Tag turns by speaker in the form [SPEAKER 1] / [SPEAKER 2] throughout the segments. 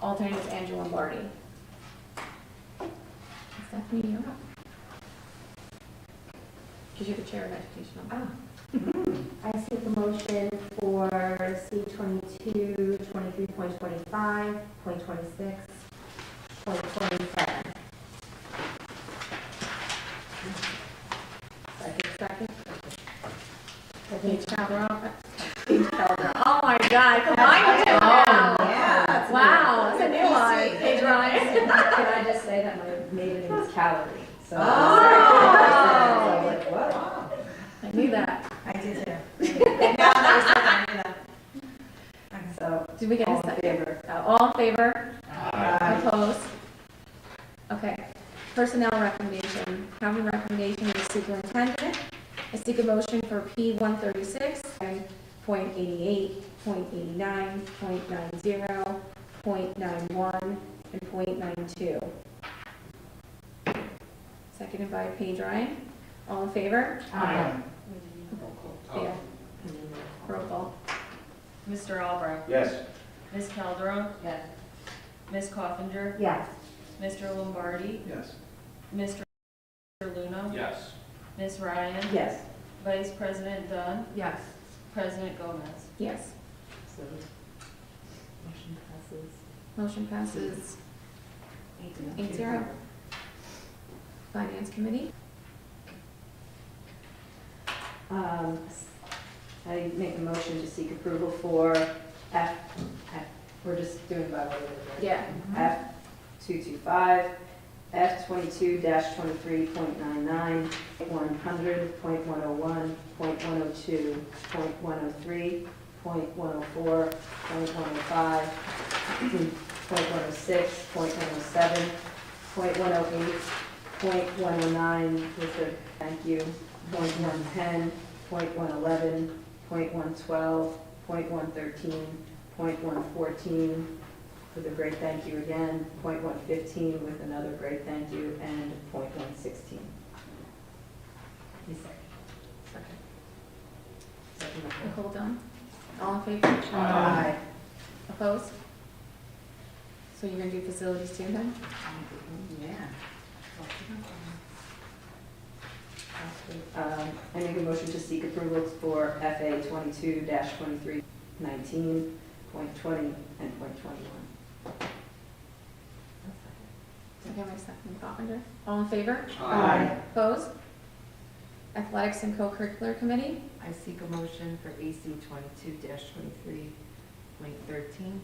[SPEAKER 1] Alternate is Andrew Lombardi. Stephanie, you're up. Because you're the chair of education.
[SPEAKER 2] Ah. I seek a motion for C twenty-two, twenty-three point twenty-five, point twenty-six, point twenty-seven.
[SPEAKER 1] Second, second. Paige Calderon. Paige Calderon. Oh my God, combined with
[SPEAKER 2] yeah.
[SPEAKER 1] Wow, Oh, that's a new one. Paige Ryan.
[SPEAKER 3] Can I just say that my maiden name is Calorie, so.
[SPEAKER 1] Oh.
[SPEAKER 3] So, like, what?
[SPEAKER 1] I knew that.
[SPEAKER 4] I did too. No, I was like, I knew that.
[SPEAKER 3] So,
[SPEAKER 1] Did we get a
[SPEAKER 3] all in
[SPEAKER 1] second?
[SPEAKER 3] favor?
[SPEAKER 1] Uh, All in favor?
[SPEAKER 4] Aye.
[SPEAKER 1] Opposed? Okay. Personnel recommendation. Having recommendation of the superintendent. I seek a motion for P one thirty-six and point eighty-eight, point eighty-nine, point nine zero, point nine one, and point nine two. Seconded by Paige Ryan. All in favor?
[SPEAKER 3] Aye. Oh.
[SPEAKER 1] Yeah. Roll call.
[SPEAKER 5] Mr. Albrecht,
[SPEAKER 6] Yes.
[SPEAKER 5] Ms. Calderon,
[SPEAKER 3] Yes.
[SPEAKER 5] Ms. Coffinger,
[SPEAKER 2] Yes.
[SPEAKER 5] Mr. Lombardi,
[SPEAKER 6] Yes.
[SPEAKER 5] Mr. Luna,
[SPEAKER 6] Yes.
[SPEAKER 5] Ms. Ryan,
[SPEAKER 3] Yes.
[SPEAKER 5] Vice President Dunn,
[SPEAKER 2] Yes.
[SPEAKER 5] President Gomez.
[SPEAKER 1] Yes.
[SPEAKER 3] So, motion passes
[SPEAKER 1] Motion passes.
[SPEAKER 3] eight to
[SPEAKER 1] Eight zero. Finance Committee.
[SPEAKER 3] Um, I make a motion to seek approval for F, F- we're just doing by way of. the-
[SPEAKER 1] Yeah.
[SPEAKER 3] F two two five, F twenty-two dash twenty-three point nine nine, one hundred, point one oh one, point one oh two, point one oh three, point one oh four, point one oh five, point one oh six, point one oh seven, point one oh eight, point one oh nine, with the thank you, point one ten, point one eleven, point one twelve, point one thirteen, point one fourteen, with a great thank you again, point one fifteen with another great thank you, and point one sixteen.
[SPEAKER 1] Nicole Dunn. All in favor?
[SPEAKER 3] Aye.
[SPEAKER 1] Opposed? So you're gonna do facilities too then?
[SPEAKER 3] Um, I make a motion to seek approval for FA twenty-two twenty-three nineteen, point twenty, and point twenty-one.
[SPEAKER 1] Okay, my second Coffinger. All in favor?
[SPEAKER 3] Aye.
[SPEAKER 1] Opposed? Athletics and co-curricular committee.
[SPEAKER 4] I seek a motion for AC twenty-two twenty-three point thirteen.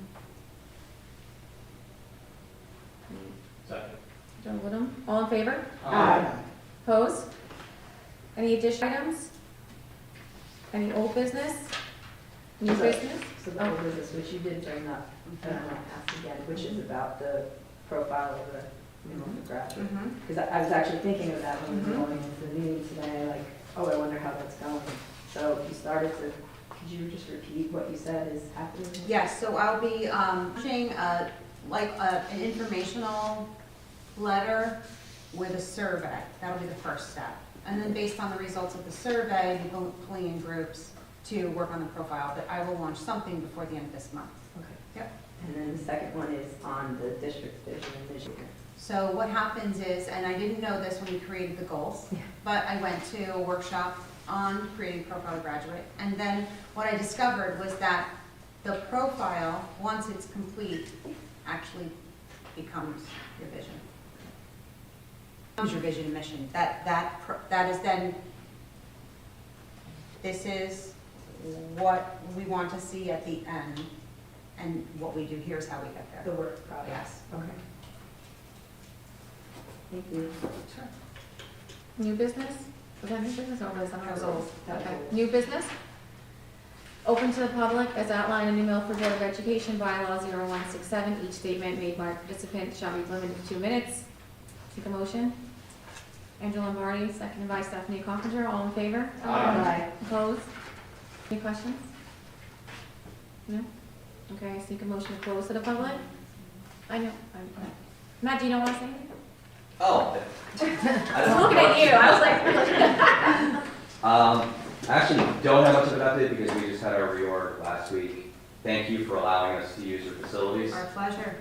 [SPEAKER 6] Second.
[SPEAKER 1] Joe Woodham. All in favor?
[SPEAKER 6] Aye.
[SPEAKER 1] Opposed? Any additional items? Any old business? New
[SPEAKER 3] Sorry.
[SPEAKER 1] business?
[SPEAKER 3] So the whole business, which you did bring up, and I want to
[SPEAKER 4] Mm-hmm.
[SPEAKER 3] ask again, which is about the profile of the, you know, the graduate.
[SPEAKER 4] Mm-hmm.
[SPEAKER 3] Because I I was actually thinking of that when we were going into the meeting today, like, oh, I wonder how that's going. So you started to, could you just repeat what you said is happening?
[SPEAKER 4] Yes, so I'll be um, pushing a, like, a- an informational letter with a survey. That'll be the first step. And then based on the results of the survey, the bul- bullying groups to work on the profile, but I will launch something before the end of this month.
[SPEAKER 3] Okay.
[SPEAKER 4] Yep.
[SPEAKER 3] And then the second one is on the district vision and vision.
[SPEAKER 4] So what happens is, and I didn't know this when we created the goals,
[SPEAKER 3] Yeah.
[SPEAKER 4] but I went to a workshop on creating profile graduate. And then what I discovered was that the profile, once it's complete, actually becomes your vision. Becomes your vision and mission. That, that, pro- that is then, this is what we want to see at the end. And what we do, here's how we get
[SPEAKER 3] The
[SPEAKER 4] there.
[SPEAKER 3] work product.
[SPEAKER 4] Yes.
[SPEAKER 3] Okay. Thank you.
[SPEAKER 1] New business? Was that new business or was that?
[SPEAKER 3] That was old. That was
[SPEAKER 1] Okay.
[SPEAKER 3] old.
[SPEAKER 1] New business? Open to the public as outlined in the Milford Board of Education bylaw 0167. Each statement made by a participant shall be limited to two minutes. Take a motion. Angela Lombardi, seconded by Stephanie Coffinger. All in favor?
[SPEAKER 7] Oh.
[SPEAKER 3] Aye.
[SPEAKER 1] Opposed? Any questions? No? Okay, I seek a motion to close to the public. I know, I'm, Matt, do you know what I'm saying?
[SPEAKER 7] Oh. I
[SPEAKER 1] I
[SPEAKER 7] don't
[SPEAKER 1] was looking at you, I was like.
[SPEAKER 7] Um, I actually, don't have much of an update because we just had our reorg last week. Thank you for allowing us to use your facilities.
[SPEAKER 4] Our pleasure.